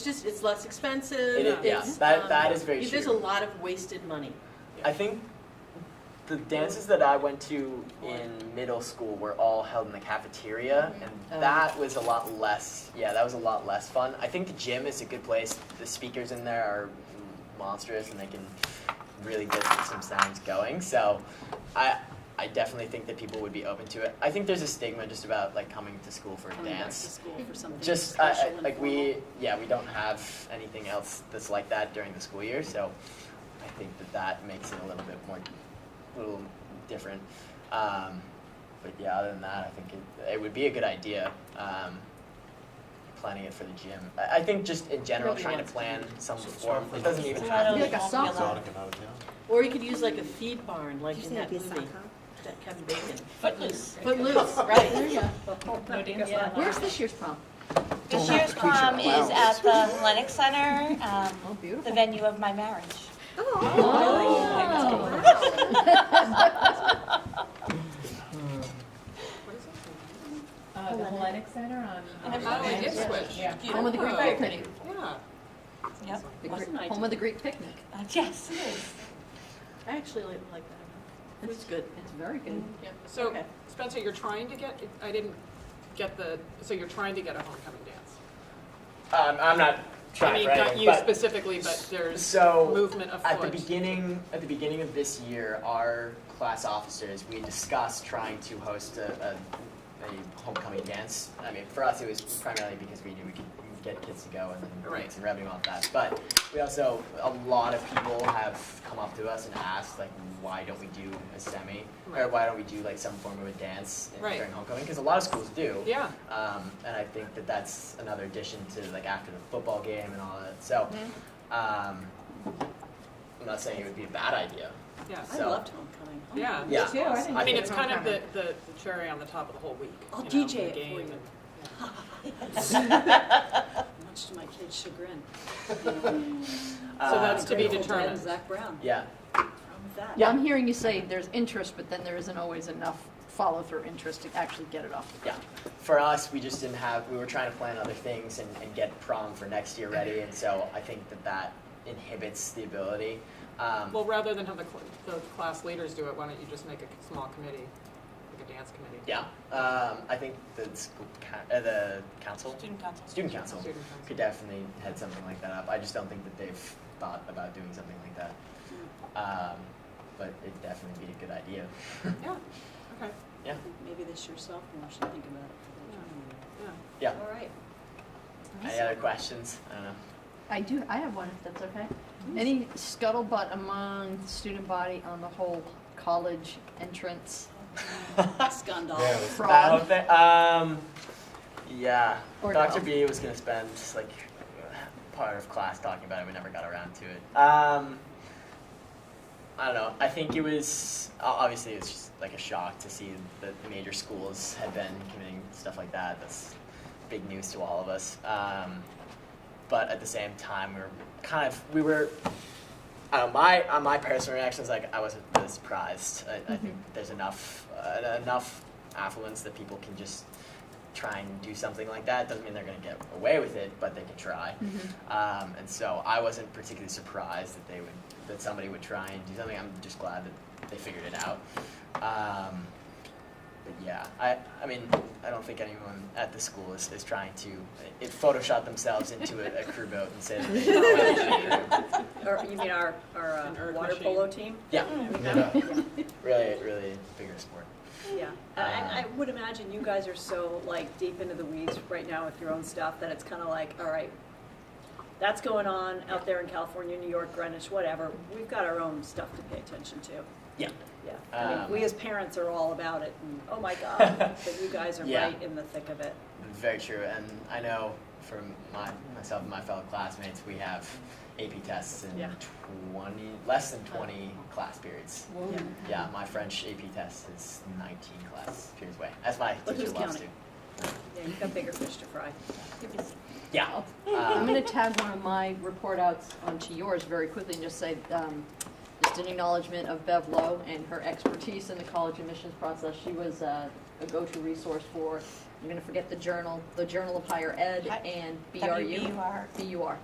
It's just, it's less expensive. It is- yeah, it's, that- um, that is very There's a true. lot of wasted money. I think the dances that I went to in middle school were all held in the cafeteria, Oh. and that was a lot less. Yeah, that was a lot less fun. I think the gym is a good place. The speakers in there are monstrous, and they can really get some sounds going. So, I. I definitely think that people would be open to it. I think there's a stigma just about like coming to school for Coming back to dance. school for something Just I, special I, and like formal. we, yeah, we don't have anything else that's like that during the school year, so I think that that makes it a little bit more, a little different. Um, but yeah, other than that, I think it, it would be a good idea. Um, planning it for the gym. I, I think just in general, Nobody trying to wants to plan some So it's form. not for It the- doesn't even It's have not to Like be. a soft one. Exotic and out of town. Or you could use like a feed barn, like Did you in say that it'd be a movie, sock, huh? that Kevin Bacon. Footloose. Footloose, There right. you go. No dance allowed. Where's this year's prom? This year's prom is at the Lennox Center, um, Oh, beautiful. the venue of my marriage. Uh, the Hellenic Center on. Oh, And then finally, did switch. Yeah. Home of the Greek picnic. Yeah. Yep. The Wasn't I Greek- Home of the Greek picnic. Uh, Yes, it is. I actually like like that. It was good. It's very good. Yeah. So Okay. Spencer, you're trying to get, I didn't get the, so you're trying to get a homecoming dance? Um, I'm not I trying mean, for anything, not you but- specifically, but there's so movement afoot. At the beginning, at the beginning of this year, our class officers, we discussed trying to host a, a, a homecoming dance. I mean, for us, it was primarily because we knew we could get kids to go and then make Right. some revenue off that. But we also, a lot of people have come up to us and asked, like, why don't we do a semi? Or Right. why don't we do like some form of a dance in- Right. during homecoming? Because a lot of schools do. Yeah, Um, and I think that that's another addition to like after the football game and all that. So, um, I'm not saying it would be a bad idea. yeah, I So- loved homecoming. Oh, yeah. Yeah. too, I think I mean, that's it's a kind of the, homecoming. the the cherry on the top of the whole week. I'll you know, DJ the it for game you. and- Much to my kid's chagrin. Uh, So that's to be Grateful Dead and determined. Zach Brown. Um, Yeah. Wrong with that? Yeah, I'm hearing you say there's interest, but then there isn't always enough follow-through interest to actually get it off the Yeah. For us, we just didn't have, we were trying to plan other things and, and get prom for next year ready. And so I think that that inhibits the ability. Um, Well, rather than have the, cl- the class leaders do it, why don't you just make a c- small committee, like a dance committee? yeah. Um, I think the school, coun- uh, the council, Student council. student council Student could council. definitely head something like that up. I just don't think that they've thought about doing something like that. Um, but it'd definitely be a good idea. Yeah, okay, Yeah. Maybe this year's sophomore should think about it. yeah. Yeah. All right. Any other questions? I don't know. I do, I have one, if that's okay. Any scuttlebutt among the student body on the whole college entrance Scandal. fraud? That whole thing- um, yeah. Or Dr. no. B was gonna spend like part of class talking about it. We never got around to it. Um, I don't know. I think it was o- obviously it's just like a shock to see that the major schools had been committing stuff like that. That's big news to all of us. Um, but at the same time, we were kind of we were. I don't know, my on my personal reaction is like I wasn't really surprised. I, Mm-hmm. I think there's enough uh, enough affluence that people can just try and do something like that. Doesn't mean they're going to get away with it, but they can try. Um, and so I wasn't particularly surprised that they would that somebody would try and do something. I'm just glad that they figured it out. Um, but yeah, I, I mean, I don't think anyone at the school is, is trying to it Photoshop themselves into a, a crew boat and say that they Or you mean our, our An uh, erg water machine. polo team? Yeah, Yeah. really, really bigger sport. Yeah. And I, I would imagine you guys are so like deep into the weeds right now with your own stuff that it's kind of like, all right, that's going on out there in California, New York, Greenwich, whatever. We've got our own stuff to pay attention to. Yeah. Yeah, I mean, Um, we as parents are all about it, and oh my God, but you guys are Yeah. right in the thick of it. Very true, and I know from my, myself and my fellow classmates, we have AP tests in Yeah. twenty, less than twenty class periods. Yeah. Yeah, my French AP test is nineteen class periods away, as my Look teacher who's loves to. counting. Yeah, you've got bigger fish to fry. Yeah, Oh. Uh, I'm um, gonna tag one of my report outs onto yours very quickly and just say, um, just an acknowledgement of Bev Lowe and her expertise in the college admissions process. She was, uh, a go-to resource for I'm gonna forget the journal, the Journal of Higher Ed Hi- and BRU. E WBUR. BUR.